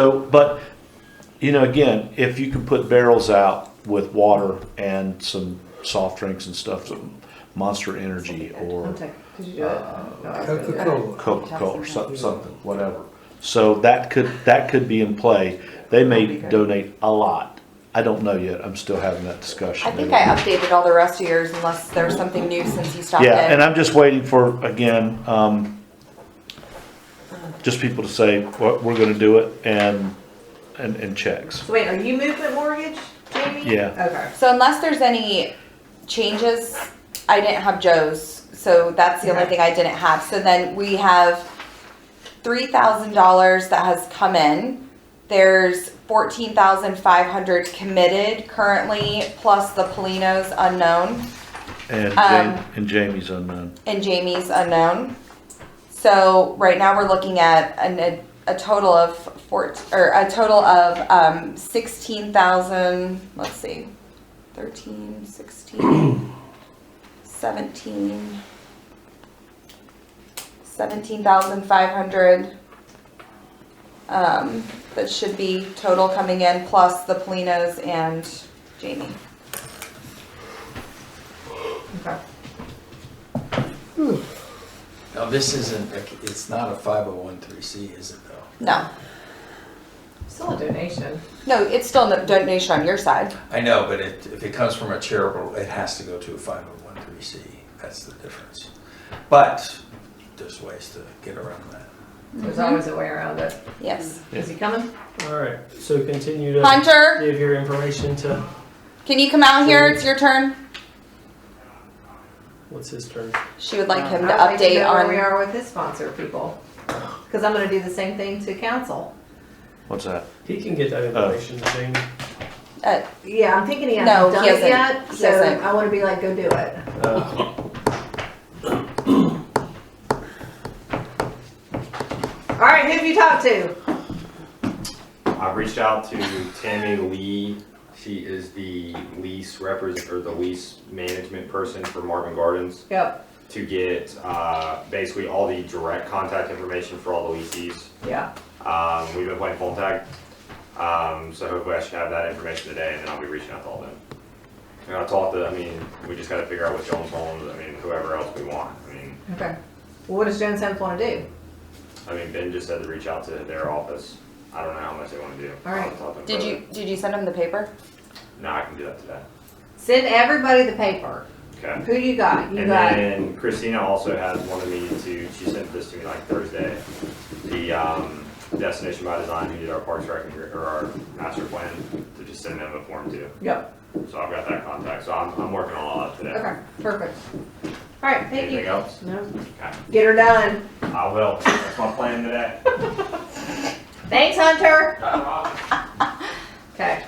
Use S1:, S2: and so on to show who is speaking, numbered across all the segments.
S1: So, but, you know, again, if you can put barrels out with water and some soft drinks and stuff, some Monster Energy or
S2: Okay, could you do it? No, I couldn't do
S3: Coca-Cola.
S2: it.
S1: Coca-Cola or some- something, whatever. So that could, that could be in play. They may donate a lot. I don't know yet. I'm still having that discussion.
S4: I think I updated all the rest of yours unless there's something new since you stopped in.
S1: Yeah, and I'm just waiting for, again, um, just people to say, well, we're gonna do it and, and, and checks.
S2: So wait, are you movement mortgage, Jamie?
S1: Yeah.
S2: Okay.
S4: So unless there's any changes, I didn't have Joe's, so that's the only
S2: Okay.
S4: thing I didn't have. So then we have three thousand dollars that has come in. There's fourteen thousand five hundred committed currently, plus the Polino's unknown
S1: And
S4: Um,
S1: Jamie, and Jamie's unknown.
S4: and Jamie's unknown. So right now we're looking at an, a, a total of four, or a total of, um, sixteen thousand, let's see, thirteen, sixteen, seventeen, seventeen thousand five hundred, um, that should be total coming in, plus the Polinos and Jamie.
S2: Okay.
S5: Now, this isn't, a- it's not a 501c, is it though?
S4: No,
S2: Still a donation.
S4: no, it's still a donation on your side.
S5: I know, but it, if it comes from a charitable, it has to go to a 501c. That's the difference. But there's ways to get around that.
S2: There's always a way around it.
S4: Yes.
S2: Is he coming?
S6: All right, so continue to
S4: Hunter,
S6: give your information to
S4: can you come out here? It's your turn.
S6: what's his turn.
S4: She would
S2: Uh,
S4: like him to
S2: I'd like to
S4: update
S2: know Where we
S4: on.
S2: are with his sponsor people. Cause I'm gonna do the same thing to council.
S1: What's that?
S6: He can get that information to Jamie.
S4: Uh,
S2: Yeah, I'm thinking he
S4: No,
S2: hasn't
S4: he
S2: done it
S4: hasn't.
S2: yet,
S4: He
S2: so
S4: hasn't.
S2: I wanna be like, go do it.
S6: Uh,
S2: Alright, who have you talked to?
S7: I've reached out to Tammy Lee. She is the lease represent, or the lease management person for Marvin Gardens
S2: Yep,
S7: to get, uh, basically all the direct contact information for all the leases.
S2: yeah.
S7: Um, we've been playing phone tag. Um, so hopefully I should have that information today and then I'll be reaching out to all of them. And I talked to, I mean, we just gotta figure out what Jones Homes, I mean, whoever else we want. I mean,
S2: Okay. Well, what does Jones Homes wanna do?
S7: I mean, Ben just said to reach out to their office. I don't know how much they wanna do.
S2: All
S7: I'll
S2: right.
S7: talk to them
S4: did
S7: further.
S4: you did you send him the paper?
S7: No, I can do that today.
S2: Send everybody the paper.
S7: Okay.
S2: Who you got? You
S7: And
S2: got,
S7: then Christina also has wanted me to, she sent this to me like Thursday, the, um, Destination by Design, who did our parks rec, and Re- or our master plan, to just send them a form too.
S2: yep,
S7: So I've got that contact, so I'm, I'm working on all that today.
S2: okay, perfect. Alright, thank
S7: Anything
S2: you.
S7: else?
S2: No.
S7: Okay,
S2: Get her done.
S7: I will, that's my plan today.
S2: Thanks, Hunter. Okay.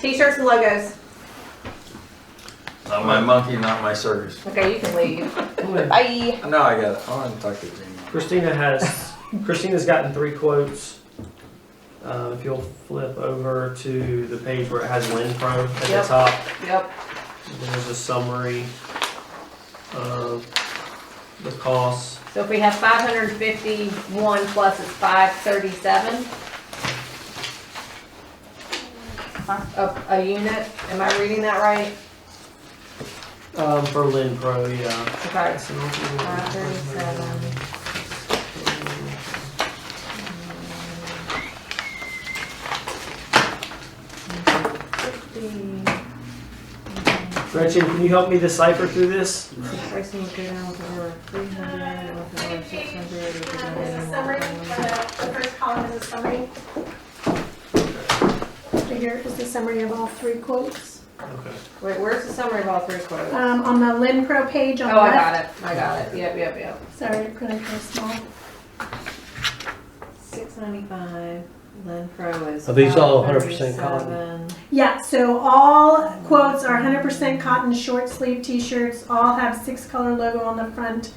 S2: T-shirts and logos.
S5: Not my monkey, not my circus.
S2: Okay, you can leave.
S6: I'm gonna-
S4: Bye.
S5: No, I got it. I want to talk to Jamie.
S6: Christina has, Christina's gotten three quotes. Uh, if you'll flip over to the page where it has Linpro at the
S2: Yep.
S6: top,
S2: Yep.
S6: there's a summary of the costs.
S2: So if we have five hundred and fifty-one plus it's five thirty-seven? A, a unit, am I reading that right?
S6: Um, for Linpro, yeah.
S2: Okay,
S6: So, uh,
S2: five thirty-seven.
S6: Gretchen, can you help me decipher through this?
S2: Pricing will go down with over three hundred, with over six hundred.
S8: There's a summary, uh, the first column is a summary. So Here is the summary of all three quotes.
S6: Okay.
S2: Wait, where's the summary of all three quotes?
S8: Um, on the Lynn Pro page on
S2: Oh,
S8: the
S2: I
S8: left.
S2: got it, I got it, yep, yep, yep.
S8: Sorry, it printed real small.
S2: Six ninety-five, Lynn Pro is.
S3: Are these all 100% cotton?
S2: 537.
S8: Yeah, so all quotes are hundred percent cotton short sleeve t-shirts, all have six color logo on the front,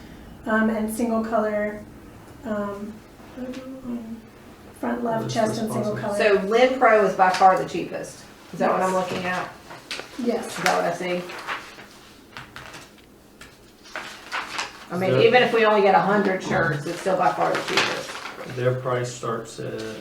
S8: um, and single color, um, logo on front left
S6: Those
S8: chest and single
S6: responses.
S8: color.
S2: So Lynn Pro is by far the cheapest. Is that what I'm looking at?
S8: Yes.
S2: Is that what I see? I
S6: So-
S2: mean, even if we only get a hundred shirts, it's still by far the cheapest.
S6: their price starts at,